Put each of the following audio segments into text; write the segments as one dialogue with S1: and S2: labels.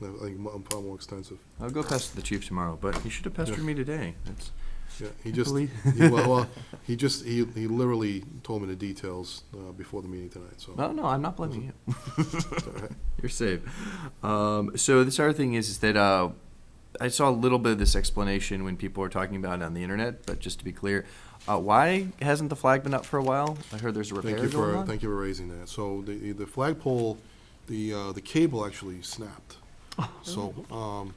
S1: No, I think mu- I'm far more extensive.
S2: I'll go pester the chief tomorrow, but he should have pestered me today. That's,
S1: Yeah, he just,
S2: believe-
S1: he, well, well, he just, he, he literally told me the details, uh, before the meeting tonight, so.
S2: no, no, I'm not blaming you.
S1: it's all right.
S2: You're safe. Um, so this other thing is, is that uh, I saw a little bit of this explanation when people were talking about it on the internet, but just to be clear, uh, why hasn't the flag been up for a while? I heard there's a repair
S1: Thank you
S2: going
S1: for,
S2: on.
S1: thank you for raising that. So the, the flagpole, the, uh, the cable actually snapped.
S2: Oh.
S1: So, um,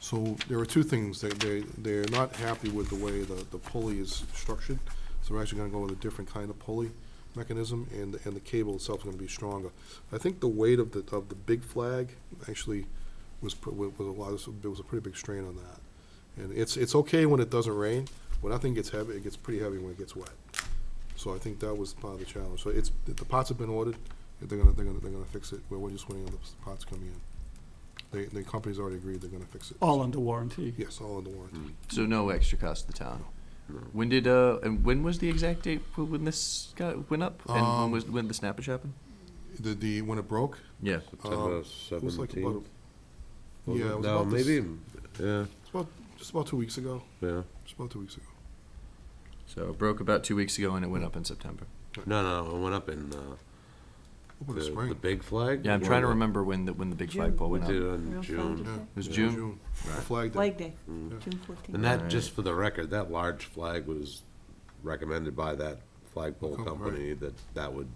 S1: so there are two things. They, they, they're not happy with the way the, the pulley is structured. So we're actually gonna go with a different kind of pulley mechanism and, and the cable itself is gonna be stronger. I think the weight of the, of the big flag actually was, pr- wa- was a lot, of- there was a pretty big strain on that. And it's, it's okay when it doesn't rain. When nothing gets heavy, it gets pretty heavy when it gets wet. So I think that was part of the challenge. So it's, the the pots have been ordered, they're gonna, they're gonna, they're gonna fix it, we're, we're just waiting on the s- pots coming in. They, the company's already agreed they're gonna fix it.
S3: All under warranty.
S1: Yes, all under warranty.
S2: So no extra cost to the town. When did uh, and when was the exact date wh- when this got went up and when
S1: Um,
S2: was when the snappage happened?
S1: The, the, when it broke,
S2: Yeah.
S1: um,
S4: September
S1: it was like about,
S4: seventeenth.
S1: a- yeah, it was
S4: No,
S1: about this,
S4: maybe, yeah,
S1: it's about, just about two weeks ago,
S4: yeah.
S1: just about two weeks ago.
S2: So it broke about two weeks ago and it went up in September.
S4: No, no, it went up in, uh,
S1: Over the
S4: the,
S1: spring.
S4: the big flag.
S2: Yeah, I'm
S4: Or
S2: trying to
S4: the-
S2: remember when the when the big
S5: June.
S2: flagpole
S4: We
S2: went
S4: did
S2: up.
S4: it in
S5: Real
S4: June.
S1: Yeah.
S5: flag
S2: was
S1: Yeah,
S2: June.
S1: The Flag day.
S5: Flag Day,
S4: Mm.
S5: June fourteenth.
S4: And that,
S2: Alright.
S4: just for the record, that large flag was recommended by that flagpole
S1: Oh, right.
S4: company that that would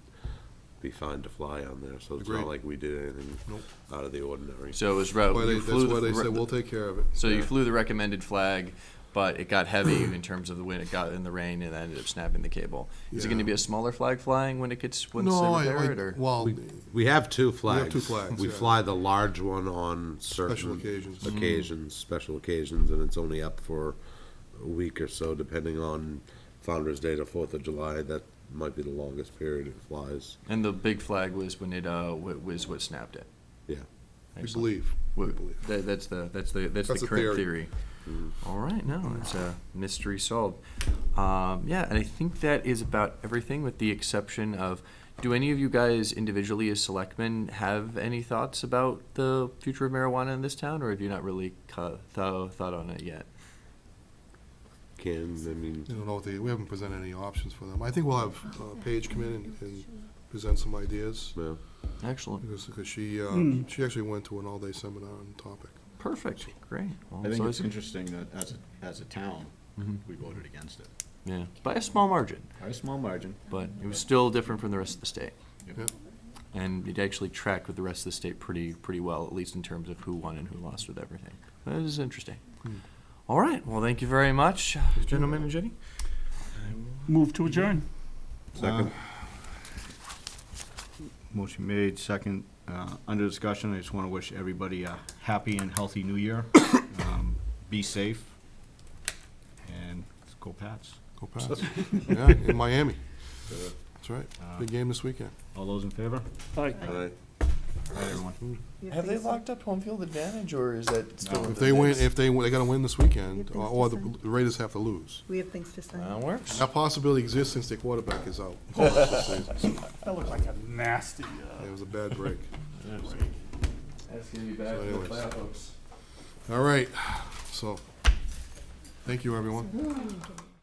S4: be fine to fly on there, so it's
S1: Agreed.
S4: not like we did anything
S1: Nope.
S4: out of the ordinary.
S2: So it was re-
S1: Why they,
S2: you flew
S1: that's why
S2: the,
S1: they
S2: re-
S1: said, we'll take care of it.
S2: So you
S4: Yeah.
S2: flew the recommended flag, but it got heavy in terms of the wind. It got in the rain and that ended up snapping the cable. Is it going to
S1: Yeah.
S2: be a smaller flag flying when it gets when
S1: No,
S2: they
S1: I,
S2: repair
S1: I,
S2: it, or
S1: well,
S4: We have two flags.
S1: two flags,
S4: We
S1: yeah.
S4: fly the large one on certain.
S1: occasions. Mhm.
S4: Occasions, special occasions, and it's only up for a week or so, depending on Founder's Day to Fourth of July. That might be the longest period it flies.
S2: and the big flag was when it uh wa- was what snapped it.
S4: Yeah.
S1: we
S2: Excellent.
S1: believe, we
S2: Wha-
S1: believe.
S2: That, that's the that's the that's,
S1: That's
S2: the
S1: the
S2: current theory.
S1: theory.
S4: Mm.
S2: All right, no, it's a mystery solved. Um, yeah, and I think that is about everything, with the exception of. Do any of you guys individually as selectmen have any thoughts about the future of marijuana in this town, or have you not really cu- tho- thought on it yet?
S4: Can, I mean,
S1: You don't know what they, we haven't presented any options for them. I think we'll have, uh, Paige come in and, and present some ideas.
S4: well,
S2: Excellent.
S1: Because, because she, uh,
S3: Hmm.
S1: she actually went to an all-day seminar on the topic.
S2: Perfect. Great. Well,
S6: I think
S2: so it's-
S6: it's interesting that as a, as a town,
S2: Mhm.
S6: we voted against it
S2: yeah, by a small margin,
S6: by Mm-hmm. a small margin.
S2: but it was still different from the rest of the state.
S6: Yep.
S1: Yep.
S2: And it actually tracked with the rest of the state pretty, pretty well, at least in terms of who won and who lost with everything. That is interesting.
S1: Hmm.
S2: All right. Well, thank you very much, gentlemen and Jenny.
S3: Move to adjourn.
S4: second,
S6: Motion made, second, uh, under discussion, I just want to wish everybody a happy and healthy new year. Um, Be safe, and let's go Pats.
S1: Go Pats. Yeah, in Miami. That's right. Big game this weekend.
S6: All those in favor?
S3: Aye.
S4: Aye.
S6: Aye, everyone.
S2: up home field advantage, or is that
S6: still No. in
S1: If they win, if they, win- they gotta win this weekend,
S5: Yep,
S1: or- or the
S5: that's
S1: Raiders have to lose.
S5: We have things to
S2: that
S5: sign.
S2: works.
S1: That possibility exists since their quarterback is out. for the rest of the season. So,
S3: That looks like a nasty,
S1: It was a bad break.
S2: That's gonna be bad
S1: So for the anyways. playoff
S2: folks.
S1: All right, so, thank you, everyone.
S5: Sign.